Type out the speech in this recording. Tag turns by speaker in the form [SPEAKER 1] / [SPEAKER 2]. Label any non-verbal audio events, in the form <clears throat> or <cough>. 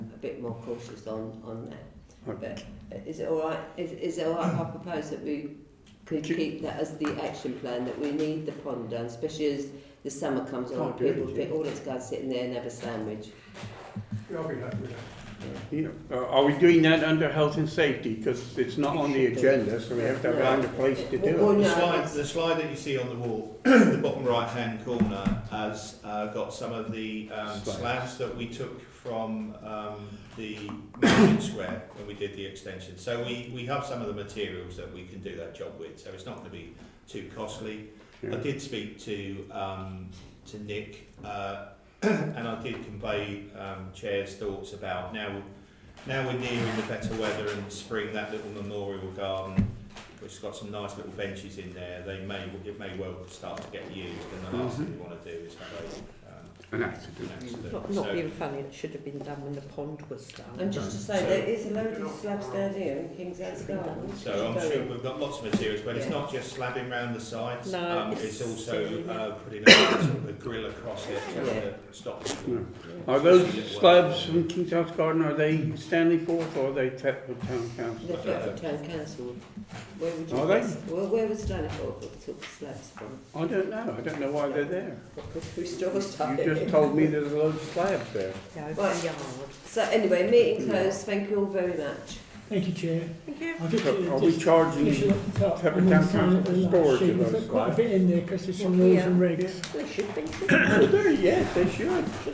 [SPEAKER 1] bit more cautious on, on that.
[SPEAKER 2] Okay.
[SPEAKER 1] But is it all right? Is, is it all right if I propose that we could
[SPEAKER 2] Ki-
[SPEAKER 1] keep that as the action plan, that we need the pond done, especially as the summer comes
[SPEAKER 2] Oh,
[SPEAKER 1] along,
[SPEAKER 2] good,
[SPEAKER 1] people
[SPEAKER 2] yeah.
[SPEAKER 1] think, oh, let's go and sit in there and have a sandwich.
[SPEAKER 3] Yeah, I'll be happy with that.
[SPEAKER 2] Yeah. Uh, Are we doing that under health and safety? Because it's not on the agenda, so we have to find a place to do
[SPEAKER 1] Well,
[SPEAKER 2] it.
[SPEAKER 4] The
[SPEAKER 1] no,
[SPEAKER 4] slide,
[SPEAKER 1] that's-
[SPEAKER 4] the slide that you see on the wall, <clears throat> the bottom right-hand corner, has uh, got some of the um,
[SPEAKER 2] Slabs.
[SPEAKER 4] slabs that we took from um, the market square when we did the extension. So we, we have some of the materials that we can do that job with, so it's not going to be too costly. I
[SPEAKER 2] Yeah.
[SPEAKER 4] did speak to um, to Nick, uh, <clears throat> and I did convey um, Chair's thoughts about now. Now we're nearing the better weather and spring. That little memorial garden, which has got some nice little benches in there, they may it may well start to get used. And the last thing we want to do is have a, um,
[SPEAKER 2] An
[SPEAKER 4] an
[SPEAKER 2] accident.
[SPEAKER 4] accident.
[SPEAKER 5] Not, not being funny, it should have been done when the pond was done.
[SPEAKER 1] And just to say, there is a load of slabs down here in King's House Garden.
[SPEAKER 4] So I'm sure we've got lots of materials, but it's
[SPEAKER 1] Yeah.
[SPEAKER 4] not just slabbing round the sides.
[SPEAKER 5] No,
[SPEAKER 4] um, it's,
[SPEAKER 5] it's
[SPEAKER 4] also
[SPEAKER 5] silly.
[SPEAKER 4] uh, putting a <coughs> sort of a grill across it just to stop people.
[SPEAKER 2] Yeah. Hmm. Are those slabs from King's House Garden, are they Stanley Forth or are they Thetford Town Council?
[SPEAKER 1] The Thetford Town Council, where would you...
[SPEAKER 2] Are they?
[SPEAKER 1] Well, where was Stanleyport that took the slabs from?
[SPEAKER 2] I don't know, I don't know why they're there.
[SPEAKER 1] <laughs> Who stole stuff?
[SPEAKER 2] You just told me there's a load of slabs there.
[SPEAKER 5] Yeah, over
[SPEAKER 1] Right.
[SPEAKER 5] the yard.
[SPEAKER 1] So anyway, meeting closed. Thank you all very much.
[SPEAKER 6] Thank you, Chair.
[SPEAKER 5] Thank you.
[SPEAKER 6] I'll just,
[SPEAKER 2] So Are
[SPEAKER 6] uh,
[SPEAKER 2] we
[SPEAKER 6] just finish it
[SPEAKER 2] charging,
[SPEAKER 6] up the top.
[SPEAKER 2] Pepper
[SPEAKER 6] and then
[SPEAKER 2] Town
[SPEAKER 6] sign
[SPEAKER 2] Council
[SPEAKER 6] it
[SPEAKER 2] for
[SPEAKER 6] in that
[SPEAKER 2] storage
[SPEAKER 6] sheet.
[SPEAKER 2] of
[SPEAKER 6] There's
[SPEAKER 2] those
[SPEAKER 6] Quite a
[SPEAKER 2] slides?
[SPEAKER 6] bit in there, because there's some rules and regs.
[SPEAKER 5] There should be.
[SPEAKER 2] Oh, there, <laughs> yes, they should.